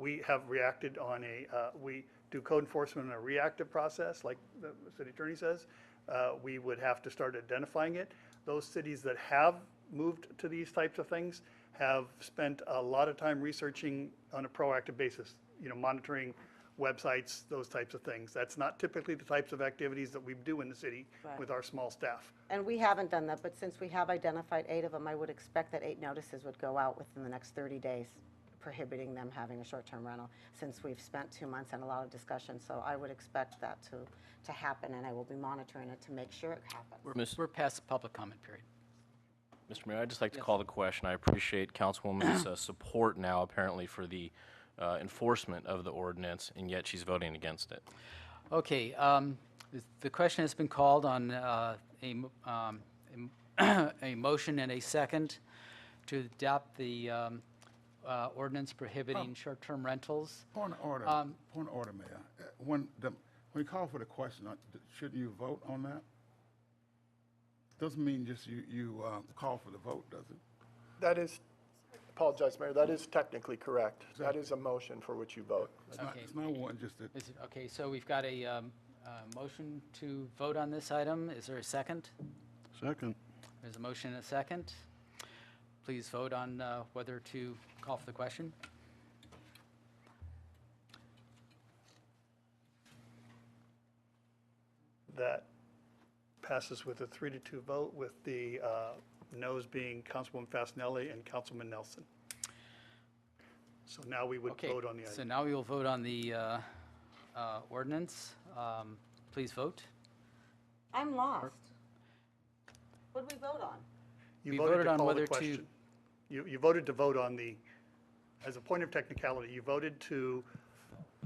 we have reacted on a, uh, we do code enforcement in a reactive process, like the city attorney says. Uh, We would have to start identifying it. Those cities that have moved to these types of things have spent a lot of time researching on a proactive basis, you know, monitoring websites, those types of things. That's not typically the types of activities that we do in the city Right. with our small staff. And we haven't done that, but since we have identified eight of them, I would expect that eight notices would go out within the next 30 days prohibiting them having a short-term rental, since we've spent two months and a lot of discussion. So I would expect that to, to happen, and I will be monitoring it to make sure it happens. We're we're past the public comment period. Mr. Mayor, I'd just like to call the question. I appreciate Councilwoman's uh, support now, apparently, for the uh, enforcement of the ordinance, and yet she's voting against it. Okay, um, th- the question has been called on uh, a m- um, a m- a motion and a second to adopt the um, uh, ordinance prohibiting short-term rentals. Point of order, point of order, Mayor. Uh, When, the- when you call for the question, uh, d- shouldn't you vote on that? Doesn't mean just you, you uh, call for the vote, does it? That is, apologize, Mayor, that is technically correct. That is a motion for which you vote. It's not, it's not one, just that, Is it- Okay, so we've got a um, uh, motion to vote on this item. Is there a second? Second. There's a motion and a second. Please vote on uh, whether to call for the question. That passes with a three to two vote, with the uh, noes being Councilwoman Fasenelli and Councilman Nelson. So now we would Okay, vote on the so item. now we will vote on the uh, uh, ordinance. Um, Please vote. I'm lost. What did we vote on? You we voted voted to on call the whether to- question. You, you voted to vote on the, as a point of technicality, you voted to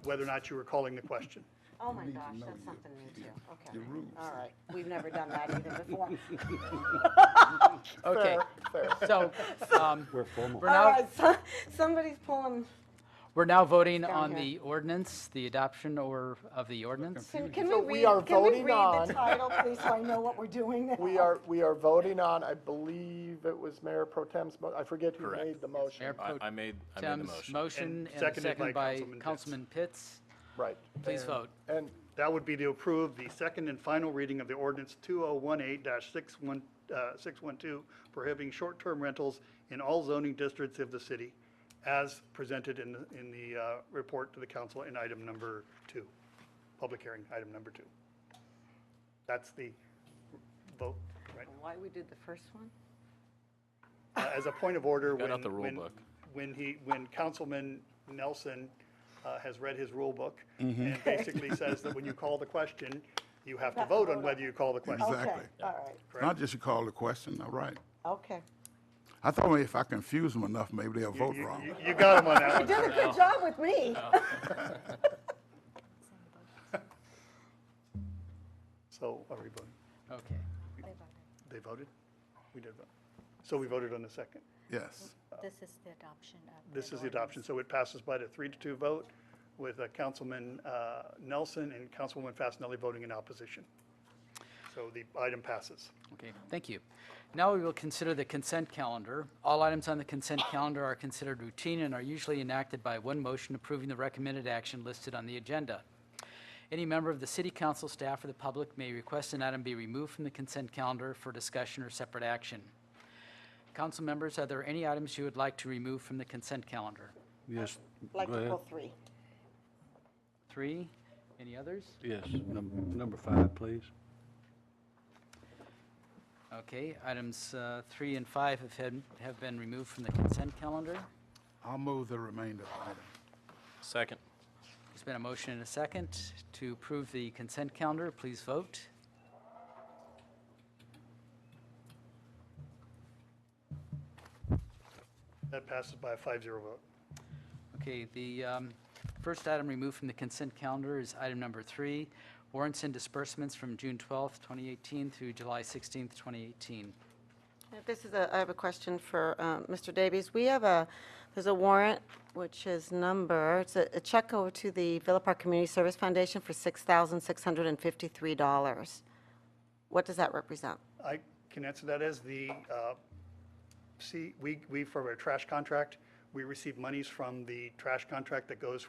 whether or not you were calling the question. Oh, my gosh, that's something new too. Okay. your rules. All right. We've never done that either before. Okay, so um, We're formal. we're All now, right, so- somebody's pulling, we're now voting on here. the ordinance, the adoption or of the ordinance. can can So we we are read, can we voting read the on- title, please, so I know what we're doing now? We are, we are voting on, I believe it was Mayor Pro Tem's, mo- I forget who Correct. made the motion. Mayor I Pro I made, I made the Tem's motion. motion And and seconded seconded by by Councilman Pitts. Councilman Pitts. Right. Please And- vote. And That would be to approve the second and final reading of the ordinance 2018-612 prohibiting short-term rentals in all zoning districts of the city as presented in, the- in the uh, report to the council in item number two, public hearing, item number two. That's the vote, right? Why we did the first one? Uh, As a point of order, Got when. out the rule when- book. When he, when Councilman Nelson uh, has read his rule book Mm-hmm. and basically says that when you call the question, you have to vote on whether you call the question. Exactly. Okay, all right, It's not just you call the question, all right. okay. I thought maybe if I confuse them enough, maybe they'll vote You- wrong. you- You got him on that one. You did a good job with me. So are we voting? Okay, They voted? We did vote. So we voted on the second. Yes. This is the adoption of. This that is the adoption, so it passes by the three to two vote with uh, Councilman uh, Nelson and Councilwoman Fasenelli voting in opposition. So the item passes. okay, thank you. Now we will consider the consent calendar. All items on the consent calendar are considered routine and are usually enacted by one motion approving the recommended action listed on the agenda. Any member of the city council, staff, or the public may request an item be removed from the consent calendar for discussion or separate action. Council members, are there any items you would like to remove from the consent calendar? Yes. Like go ahead. April 3. Three? Any others? Yes, num- number five, please. Okay, items uh, three and five have had- have been removed from the consent calendar. I'll move the remainder of the item. Second. There's been a motion and a second to approve the consent calendar. Please vote. That passes by a five-zero vote. Okay, the um, first item removed from the consent calendar is item number three, warrants and disbursements from June 12th, 2018 through July 16th, 2018. This is a, I have a question for um, Mr. Davies. We have a, there's a warrant, which is number, it's a a check over to the Villa Park Community Service Foundation for $6,653. What does that represent? I can answer that as the, uh, see, we, we, for our trash contract, we receive monies from the trash contract that goes